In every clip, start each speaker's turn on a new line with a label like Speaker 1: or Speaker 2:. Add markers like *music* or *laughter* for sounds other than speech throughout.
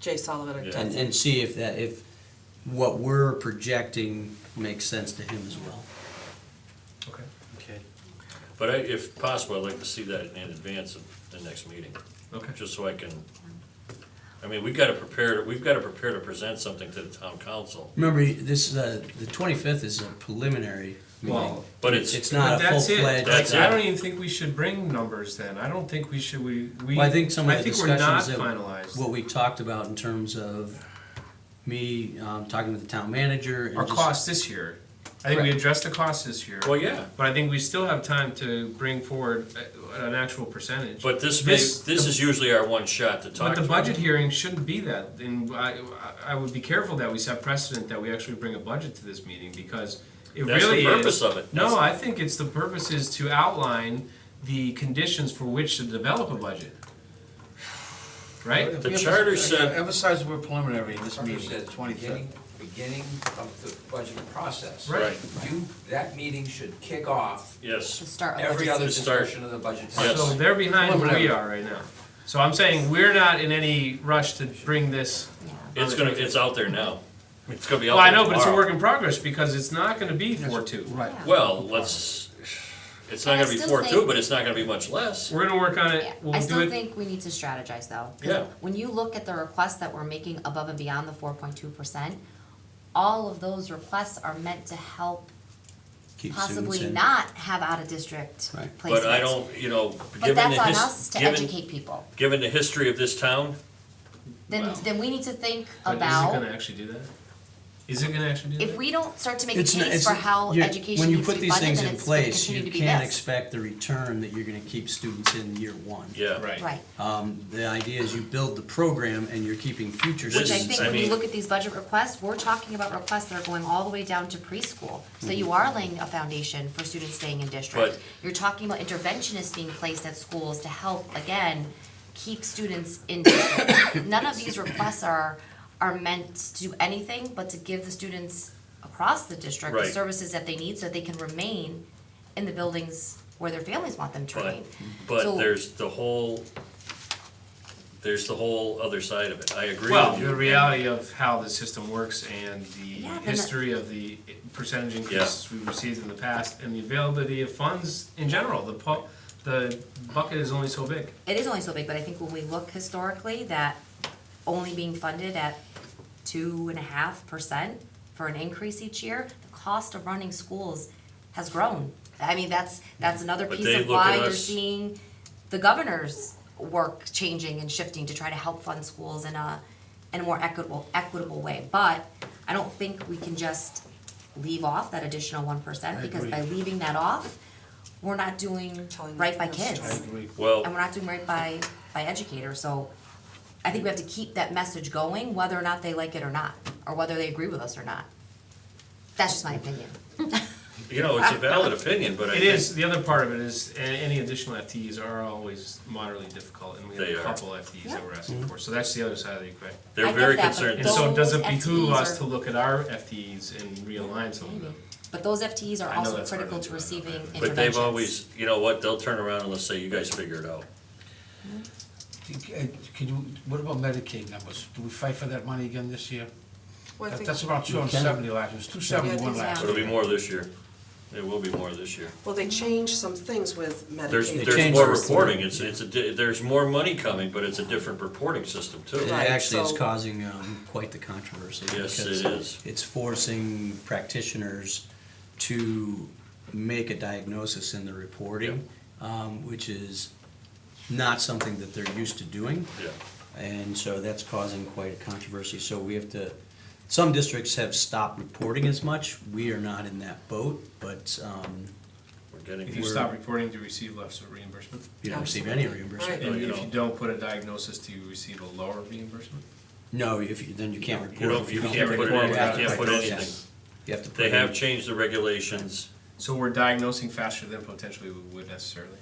Speaker 1: Jay Sullivan or
Speaker 2: Yeah.
Speaker 1: Ted.
Speaker 3: and, and see if that, if what we're projecting makes sense to him as well.
Speaker 4: Okay.
Speaker 3: Okay.
Speaker 2: But I, if possible, I'd like to see that in advance of the next meeting,
Speaker 4: Okay.
Speaker 2: just so I can, I mean, we've gotta prepare, we've gotta prepare to present something to the town council,
Speaker 3: Remember, this, uh, the twenty-fifth is a preliminary meeting.
Speaker 4: Well,
Speaker 2: but it's.
Speaker 3: It's not a
Speaker 4: That's it.
Speaker 3: full-fledged.
Speaker 2: That's
Speaker 4: I
Speaker 2: it.
Speaker 4: don't even think we should bring numbers then. I don't think we should, we, we.
Speaker 3: Well, I think some of
Speaker 4: I
Speaker 3: the
Speaker 4: think we're not
Speaker 3: discussions that,
Speaker 4: finalized.
Speaker 3: what we talked about in terms of me, um, talking with the town manager and
Speaker 4: Our
Speaker 3: just-
Speaker 4: costs this year. I think we
Speaker 3: Correct.
Speaker 4: addressed the costs this year.
Speaker 2: Well, yeah,
Speaker 4: But I think we still have time to bring forward uh, an actual percentage.
Speaker 2: but this may,
Speaker 4: This-
Speaker 2: this is usually our one shot to talk.
Speaker 4: But the
Speaker 2: to
Speaker 4: budget
Speaker 2: them.
Speaker 4: hearing shouldn't be that, and I, I I would be careful that we set precedent that we actually bring a budget to this meeting, because it
Speaker 2: That's the
Speaker 4: really is.
Speaker 2: purpose of it.
Speaker 4: No,
Speaker 2: That's-
Speaker 4: I think it's, the purpose is to outline the conditions for which to develop a budget. Right?
Speaker 2: The charter said-
Speaker 5: uh, Emphasize we're preliminary in this
Speaker 6: Tucker
Speaker 5: meeting,
Speaker 6: said,
Speaker 5: twenty-fifth.
Speaker 6: beginning, beginning of the budget process.
Speaker 4: Right.
Speaker 6: You, that meeting should kick off
Speaker 2: Yes.
Speaker 1: start
Speaker 6: every other
Speaker 2: To start.
Speaker 6: discussion of the budget.
Speaker 2: Yes.
Speaker 4: So
Speaker 6: process.
Speaker 4: they're behind where we
Speaker 5: Preliminary.
Speaker 4: are right now. So I'm saying, we're not in any rush to bring this.
Speaker 2: It's gonna, it's out there now. It's gonna be out
Speaker 4: Well, I
Speaker 2: there
Speaker 4: know, but it's a work
Speaker 2: tomorrow.
Speaker 4: in progress, because it's not gonna be four two.
Speaker 5: Right.
Speaker 2: Well, let's, it's not
Speaker 7: And I
Speaker 2: gonna be
Speaker 7: still
Speaker 2: four two,
Speaker 7: think-
Speaker 2: but it's not gonna be much less.
Speaker 4: We're gonna work on
Speaker 7: Yeah,
Speaker 4: it,
Speaker 7: I
Speaker 4: we'll do
Speaker 7: still
Speaker 4: it,
Speaker 7: think we need to strategize though. 'cause
Speaker 2: Yeah.
Speaker 7: When you look at the requests that we're making above and beyond the four point two percent, all of those requests are meant to help
Speaker 3: keep students
Speaker 7: possibly
Speaker 3: in.
Speaker 7: not have out of district
Speaker 3: Right.
Speaker 7: placements.
Speaker 2: But I don't, you know,
Speaker 7: But
Speaker 2: given
Speaker 7: that's
Speaker 2: the
Speaker 7: on us
Speaker 2: his,
Speaker 7: to
Speaker 2: given,
Speaker 7: educate people.
Speaker 2: given the history of this town,
Speaker 7: Then,
Speaker 4: Wow.
Speaker 7: then we need to think
Speaker 4: but is it gonna
Speaker 7: about,
Speaker 4: actually do that? Is it gonna actually do that?
Speaker 7: if we don't start to make a
Speaker 3: It's not-
Speaker 7: case
Speaker 3: it's-
Speaker 7: for how
Speaker 3: you-
Speaker 7: education needs to be
Speaker 3: When you put
Speaker 7: funded,
Speaker 3: these
Speaker 7: then
Speaker 3: things in
Speaker 7: it's gonna
Speaker 3: place,
Speaker 7: continue
Speaker 3: you
Speaker 7: to be
Speaker 3: can't
Speaker 7: this.
Speaker 3: expect the return that you're gonna keep students in year one.
Speaker 2: yeah.
Speaker 4: Right.
Speaker 7: Right,
Speaker 3: Um, the idea is you build the program and you're keeping future
Speaker 2: This
Speaker 7: which I
Speaker 2: is-
Speaker 7: think
Speaker 2: I
Speaker 7: when you
Speaker 2: mean-
Speaker 7: look at these budget requests, we're talking about requests that are going all the way down to preschool. So you are laying a foundation for students staying in district.
Speaker 2: But-
Speaker 7: You're talking about interventionists being placed at schools to help, again, keep students in *coughs* district. None of these requests are, are meant to do anything but to give the students across the district the
Speaker 2: Right.
Speaker 7: services that they need so they can remain in the buildings where their families want them to
Speaker 2: But,
Speaker 7: remain.
Speaker 2: but
Speaker 7: So-
Speaker 2: there's the whole, there's the whole other side of it. I agree
Speaker 4: Well,
Speaker 2: with
Speaker 4: the
Speaker 2: you.
Speaker 4: reality of how the system works and
Speaker 7: Yeah,
Speaker 4: the
Speaker 7: but the-
Speaker 4: history of the percentage increases we've received in the past and the availability of funds in general, the pu- the bucket is only so big.
Speaker 7: it is only so big, but I think when we look historically, that only being funded at two and a half percent for an increase each year, the cost of running schools has grown. I mean, that's, that's another
Speaker 2: But
Speaker 7: piece
Speaker 2: they
Speaker 7: of
Speaker 2: look at
Speaker 7: why you're
Speaker 2: us-
Speaker 7: seeing the governor's work changing and shifting to try to help fund schools in a, in a more equitable, equitable way. But I don't think we can just leave off that additional one percent, because by leaving that off, we're not doing
Speaker 1: Telling
Speaker 7: right by
Speaker 1: the
Speaker 7: kids and
Speaker 2: Well,
Speaker 7: we're not doing right by, by educators, so I think we have to keep that message going, whether or not they like it or not, or whether they agree with us or not. That's just my opinion.
Speaker 2: you know, it's a valid opinion, but I
Speaker 4: It
Speaker 2: think.
Speaker 4: is, the other part of it is, a- any additional FTEs are always moderately difficult and we have
Speaker 2: They
Speaker 4: a
Speaker 2: are.
Speaker 4: couple FTEs that we're asking for, so that's the other side of the equation.
Speaker 7: I
Speaker 2: They're
Speaker 7: get
Speaker 2: very
Speaker 7: that, but
Speaker 2: concerned.
Speaker 4: And so does it
Speaker 7: Those
Speaker 4: behoove
Speaker 7: FTEs
Speaker 4: us
Speaker 7: are-
Speaker 4: to look at our FTEs and realign some of them?
Speaker 7: But those FTEs are
Speaker 4: Mm-hmm. I know
Speaker 7: also
Speaker 4: that's hard
Speaker 7: critical
Speaker 4: to
Speaker 7: to
Speaker 4: do, I know that,
Speaker 7: receiving
Speaker 4: but-
Speaker 7: interventions.
Speaker 2: But they've always, you know what, they'll turn around and let's say, you guys figure it out.
Speaker 5: Uh, Can you, what about Medicaid numbers? Do we fight for that money again this year?
Speaker 1: Well, I
Speaker 5: That-
Speaker 1: think-
Speaker 5: That's about two hundred and seventy last, it was two
Speaker 1: Yeah, I
Speaker 5: seventy-one
Speaker 1: think
Speaker 5: last.
Speaker 1: so.
Speaker 2: It'll be more this year. It will be more this year.
Speaker 1: Well, they changed some things with
Speaker 2: There's,
Speaker 1: Medicaid.
Speaker 2: there's
Speaker 3: changed
Speaker 2: more
Speaker 3: the
Speaker 2: reporting.
Speaker 3: reporting.
Speaker 2: It's, it's, a di- there's more money coming, but it's a different reporting system too.
Speaker 3: It
Speaker 1: Right,
Speaker 3: actually is
Speaker 1: so-
Speaker 3: causing um, quite the controversy.
Speaker 2: Yes,
Speaker 3: because
Speaker 2: it is.
Speaker 3: It's forcing practitioners to make a diagnosis in the reporting, um, which is not something that they're used to doing.
Speaker 2: Yeah.
Speaker 3: And so that's causing quite a controversy. So we have to, some districts have stopped reporting as much. We are not in that boat, but um,
Speaker 2: We're
Speaker 4: If you
Speaker 2: getting,
Speaker 4: stop reporting, do you receive less of reimbursement?
Speaker 3: you don't receive any
Speaker 1: Absolutely.
Speaker 3: reimbursement.
Speaker 4: And
Speaker 2: you
Speaker 4: if
Speaker 2: don't.
Speaker 4: you don't put a diagnosis, do you receive a lower reimbursement?
Speaker 3: No, if you, then you can't report.
Speaker 2: You don't-
Speaker 3: it.
Speaker 2: you
Speaker 3: don't
Speaker 2: can't
Speaker 4: put it
Speaker 3: report
Speaker 4: in. You
Speaker 3: after
Speaker 4: can't put
Speaker 3: diagnosis.
Speaker 2: anything.
Speaker 3: You have to put
Speaker 2: they
Speaker 3: it
Speaker 2: have
Speaker 3: in.
Speaker 2: changed the regulations.
Speaker 4: So we're diagnosing faster than potentially we would necessarily?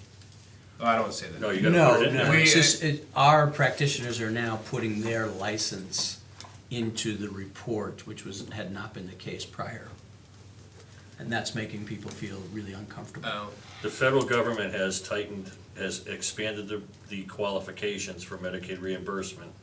Speaker 4: Oh, I don't want to say that.
Speaker 2: No, you gotta
Speaker 3: No,
Speaker 2: put it in
Speaker 3: no,
Speaker 2: there.
Speaker 3: it's
Speaker 4: We-
Speaker 3: just, it, our practitioners are now putting their license into the report, which was, had not been the case prior. And that's making people feel really uncomfortable.
Speaker 4: Oh,
Speaker 2: The federal government has tightened, has expanded the, the qualifications for Medicaid reimbursement